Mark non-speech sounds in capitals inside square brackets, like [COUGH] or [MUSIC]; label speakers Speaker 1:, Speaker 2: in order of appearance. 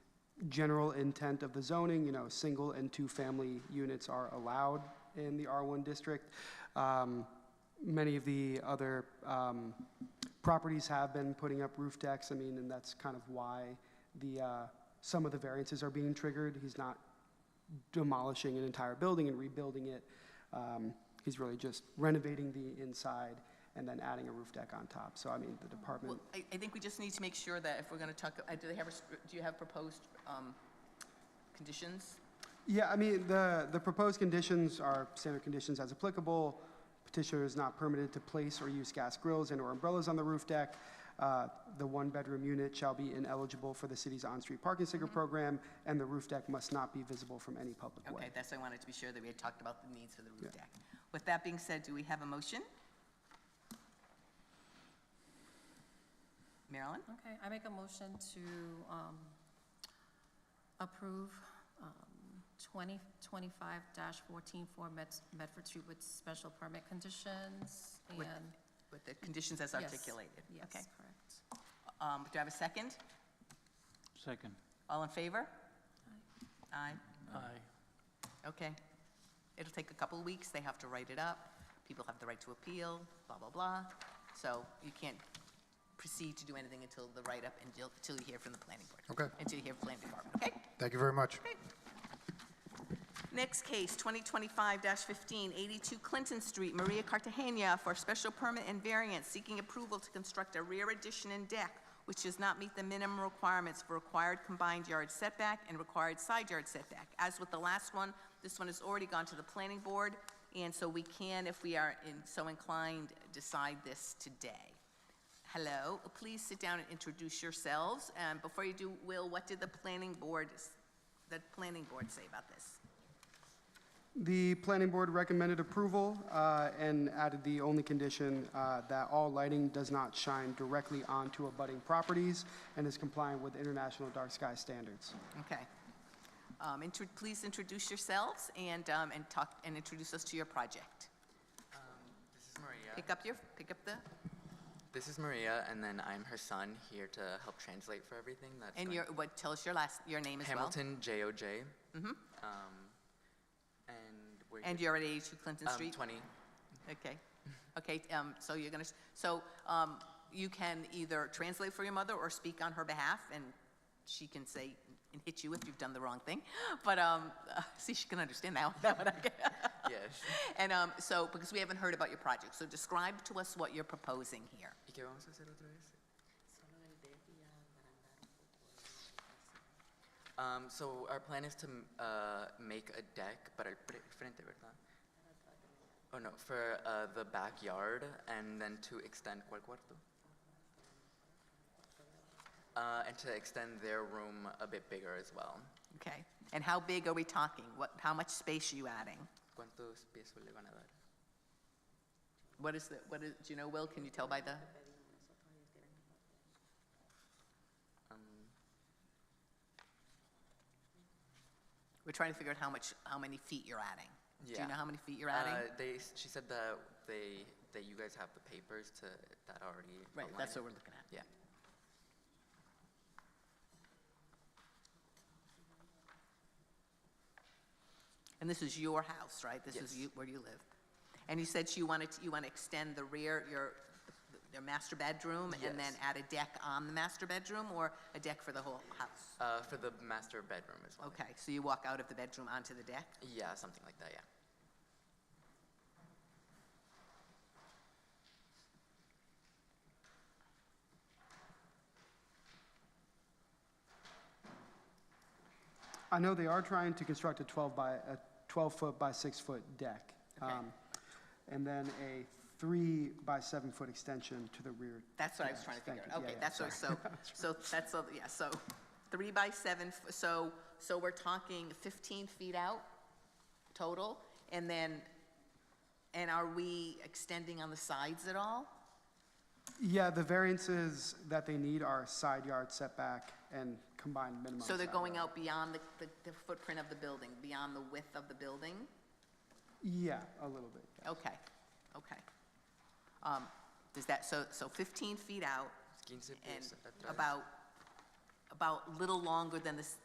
Speaker 1: general intent of the zoning, you know, single and two-family units are allowed in the R1 district. Um, Many of the other um, properties have been putting up roof decks, I mean, and that's kind of why the, uh, some of the variances are being triggered. He's not demolishing an entire building and rebuilding it. Um, He's really just renovating the inside and then adding a roof deck on top. So I mean, the
Speaker 2: Well,
Speaker 1: department,
Speaker 2: I, I think we just need to make sure that if we're gonna talk, uh, do they have, a str- do you have proposed, um, conditions?
Speaker 1: yeah, I mean, the, the proposed conditions are standard conditions as applicable. Petitioner is not permitted to place or use gas grills and/or umbrellas on the roof deck. Uh, The one-bedroom unit shall be ineligible for the city's on-street parking sticker program, and the roof deck must not be visible from any public way.
Speaker 2: Okay, that's, what I wanted to be sure that we had talked about the needs for the roof deck. With that being said, do we have a motion? Marilyn,
Speaker 3: Okay, I make a motion to um, approve um, 2025-14 for Meds- Medford Street with special permit conditions
Speaker 2: With-
Speaker 3: and.
Speaker 2: with the conditions as
Speaker 3: yes,
Speaker 2: articulated?
Speaker 3: Yes,
Speaker 2: Okay.
Speaker 3: correct.
Speaker 2: Um, do I have a second?
Speaker 4: Second.
Speaker 2: All in favor? Aye.
Speaker 4: Aye.
Speaker 2: Okay. It'll take a couple of weeks, they have to write it up, people have the right to appeal, blah, blah, blah. So you can't proceed to do anything until the write-up, and until until you hear from the planning board.
Speaker 5: Okay.
Speaker 2: Until you hear from the planning department, okay?
Speaker 5: Thank you very much.
Speaker 2: Next case, 2025-15, 82 Clinton Street, Maria Cartagena, for special permit and variance, seeking approval to construct a rear addition and deck, which does not meet the minimum requirements for required combined yard setback and required side yard setback. As with the last one, this one has already gone to the planning board, and so we can, if we are in- so inclined, decide this today. Hello, please sit down and introduce yourselves. And before you do, Will, what did the planning board, s- the planning board say about this?
Speaker 1: The planning board recommended approval uh, and added the only condition uh, that all lighting does not shine directly onto abutting properties and is compliant with international dark sky standards.
Speaker 2: Okay. Um, intro- Please introduce yourselves and, um, and talk, and introduce us to your project.
Speaker 6: This is Maria.
Speaker 2: Pick up your, pick up the,
Speaker 6: This is Maria, and then I'm her son here to help translate for everything. That's
Speaker 2: and
Speaker 6: going-
Speaker 2: your, what, tell us your last, your name as well.
Speaker 6: Hamilton J O J. Mm-hmm. Um, and we're
Speaker 2: And
Speaker 6: here-
Speaker 2: you're at 82 Clinton
Speaker 6: um,
Speaker 2: Street?
Speaker 6: Twenty.
Speaker 2: Okay, okay, um, so you're gonna, s- so, um, you can either translate for your mother or speak on her behalf, and she can say, and hit you if you've done the wrong thing, [LAUGHS] but, um, see, she can understand that, one, [LAUGHS] that one I can.
Speaker 6: Yes.
Speaker 2: And, um, so, because we haven't heard about your project, so describe to us what you're proposing here.
Speaker 6: ¿Y qué vamos a hacer otra vez? Um, so our plan is to m- uh, make a deck para el pre- frente, ¿verdad? Oh no, for uh, the backyard and then to extend cual cuarto? Uh, and to extend their room a bit bigger as well.
Speaker 2: Okay, and how big are we talking? What, how much space are you adding?
Speaker 6: ¿Cuántos pies le van a dar?
Speaker 2: What is the, what is, do you know, Will, can you tell by the,
Speaker 6: Um,
Speaker 2: we're trying to figure out how much, how many feet you're adding. Do you
Speaker 6: Yeah.
Speaker 2: know how many feet you're adding?
Speaker 6: Uh, they, s- she said that they, that you guys have the papers to, that already.
Speaker 2: Right,
Speaker 6: outline
Speaker 2: that's
Speaker 6: it.
Speaker 2: what we're looking at.
Speaker 6: Yeah.
Speaker 2: And this is your house, right? This is
Speaker 6: Yes.
Speaker 2: you, where you live. And you said you wanted, to- you want to extend the rear, your, your master bedroom and then
Speaker 6: Yes.
Speaker 2: add a deck on the master bedroom or a deck for the whole house?
Speaker 6: Uh, for the master bedroom as well.
Speaker 2: Okay, so you walk out of the bedroom onto the deck?
Speaker 6: Yeah, something like that, yeah.
Speaker 1: I know they are trying to construct a 12 by, a 12-foot by 6-foot deck.
Speaker 2: Okay.
Speaker 1: um, And then a 3 by 7-foot extension to the rear.
Speaker 2: That's what I was trying to
Speaker 1: Thank
Speaker 2: figure
Speaker 1: you.
Speaker 2: out.
Speaker 1: Yeah,
Speaker 2: Okay,
Speaker 1: yeah,
Speaker 2: that's
Speaker 1: [LAUGHS]
Speaker 2: what, so, so that's, all- yeah, so three by seven, f- so, so we're talking 15 feet out total? And then, and are we extending on the sides at all?
Speaker 1: Yeah, the variances that they need are side yard setback and combined minimum.
Speaker 2: So they're
Speaker 1: side
Speaker 2: going
Speaker 1: yard.
Speaker 2: out beyond the, the- the footprint of the building, beyond the width of the building?
Speaker 1: Yeah, a little bit. yeah.
Speaker 2: Okay, okay. Um, Does that, so, so 15 feet out
Speaker 6: Quince
Speaker 2: and
Speaker 6: pies atrás.
Speaker 2: about, about little longer than this,